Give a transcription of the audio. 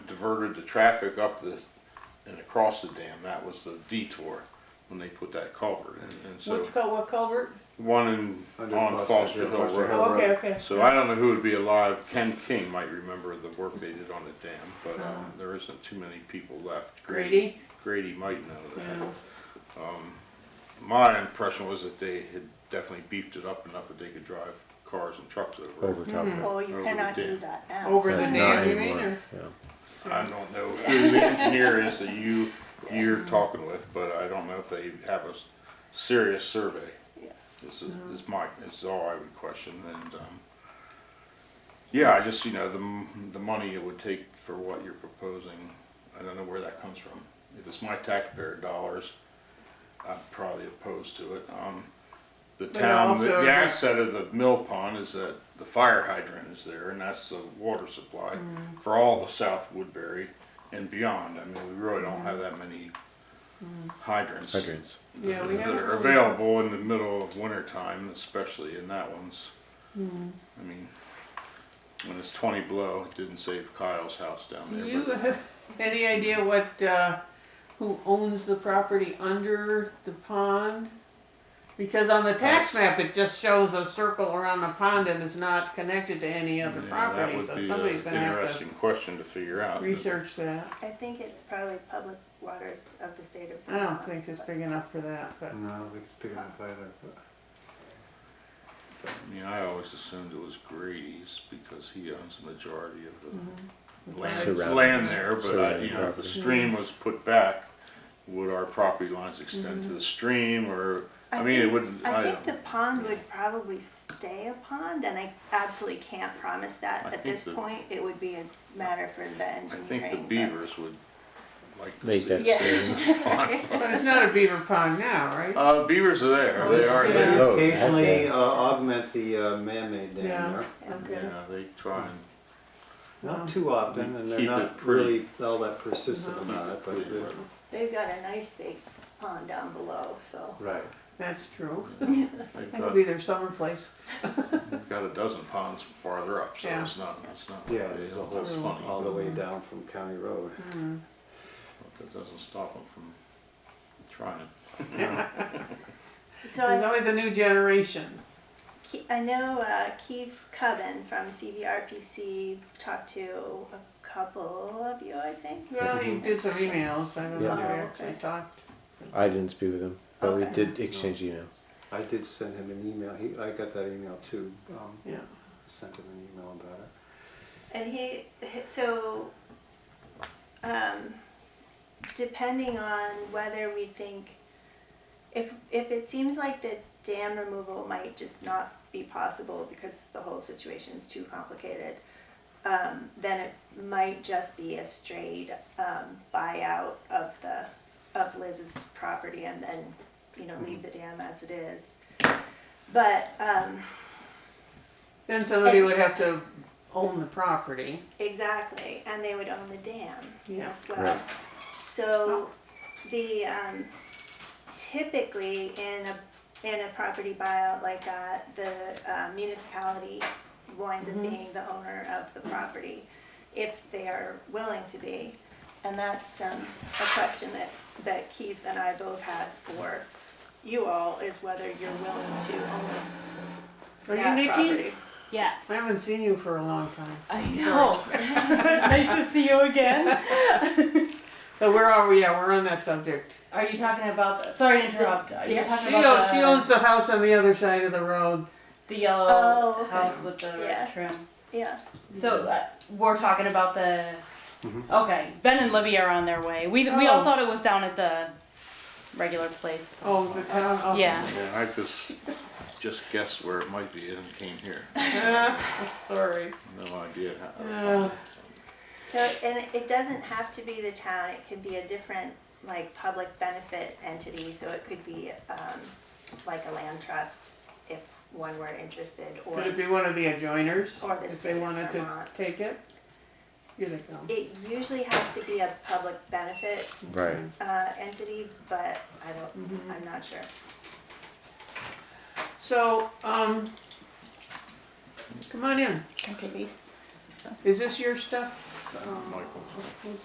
diverted the traffic up the, and across the dam. That was the detour when they put that culvert in. And so, Which cul, what culvert? one in, Under on Foster Foster Hill, Hill Foster Road. Hill. Oh, okay, Road. okay. So I don't know who would be alive. Ken King might remember the work they did on the dam, but um, there isn't too many people left. Uh-huh. Grady? Grady might know that. Yeah. My impression was that they had definitely beefed it up enough that they could drive cars and trucks over. over it. top of it. Oh, you Over the cannot do dam. that now. Over the But not dam, you mean, anymore, or? yeah. I don't know who the engineer is that you, you're talking with, but I don't know if they have a s- serious survey. Yeah. This is, Mm-hmm. this might, this is all I would question and, um, yeah, I just, you know, the, m- the money it would take for what you're proposing, I don't know where that comes from. If it's my taxpayer dollars, I'm probably opposed to it. Um, the But town, the also- the asset of the mill pond is that the fire hydrant is there and that's the water supply Mm-hmm. for all the South Woodbury and beyond. I mean, we really Mm-hmm. don't have that many hydrants Hydrants. Yeah, we that haven't are really- available in the middle of winter time, especially in that one's. Mm-hmm. I mean, when it's twenty below, it didn't save Kyle's house down Do there. you but- have any idea what, uh, who owns the property under the pond? Because on the tax map, it just shows a circle around the pond and it's not connected to any other Yeah, that property, would so be somebody's a gonna have to Interesting question to figure out. but- research that. I think it's probably public waters of the state of I Vermont. don't think it's but- big enough for that, but, No, I don't think it's picking up either. I mean, I always assumed it was Grady's because he owns the majority of Mm-hmm. the land, Surrounding- land there, but I, surrounding you know, if the property. stream was put back, would our property lines extend Mm-hmm. to the stream or, I mean, it think- wouldn't, I I don't. think the pond would probably stay a pond, and I absolutely can't promise I that at think this the- point. It would be a matter for the I engineering. think the but- beavers would like to Make see that it. Yeah. but it's not a beaver pond now, right? Uh, beavers are there. They are Yeah. there. Low, Occasionally Oh, okay. uh, augment the uh, man-made dam Yeah. there. Oh, Okay. Yeah, they try and Not too often, and they're Keep it not pretty. really all that persistent Uh-huh. about it, but, Pretty uh, well. They've got a nice big pond down below, so. right. That's true. they've That could got, be their summer place. they've got a dozen ponds farther up, so Yeah. it's not it's not Yeah, like they there's a don't- whole it's swamp funny. all the way down from County Road. but That doesn't stop them from trying. So There's I always a new generation. Ke- I know uh, Keith Coven from CVRPC talked to a couple of you, I think. Well, he did some emails, I don't know if we Yeah. actually talked. I didn't speak with him, but we Okay. did exchange emails. I did send him an email, he, I got that email too, um, Yeah, sent him an email about it. And he, he- so, um, depending on whether we think, if, if it seems like the dam removal might just not be possible because the whole situation's too complicated, um, then it might just be a straight, um, buyout of the, of Liz's property and then, you know, leave the dam as it is. But, um, then somebody would have to own the property. Exactly, and they would own the dam Yeah. as well. Right. So the um, typically in a in a property buyout like that, the uh, municipality winds Mm-hmm. up being the owner of the property if they are willing to be, and that's um, a question that that Keith and I both had for you all is whether you're willing to own Are you that Nikki? property. Yeah, I haven't seen you for a long time. I know. nice to see you again. So where are we? Yeah, we're on that subject. Are you talking about? The, sorry to interrupt. Are you Yeah, talking She about owns, the, she owns the house on the other side of the road. the yellow Oh, okay. house with the Yeah. red trim? Yeah. So uh, we're talking about the. Mm-hmm. Mhm. Okay, Ben and Libby are on their way. We we Oh. all thought it was down at the regular place. Oh, the town. Oh. Yeah. Yeah, I just just guessed where it might be and came here. Ah, sorry. No idea. How, Uh, So, and it doesn't have to be the town, it could be a different, like, public benefit entity, so it could be, um, like a land trust, if one were interested, or could it be one of the adjoiners Or the if state they of wanted to Vermont. take it? Here they come. it usually has to be a public benefit, Right. uh, entity, but I don't, I'm not sure. So, um, come on in. Can I take these? Is this your stuff? Michael's.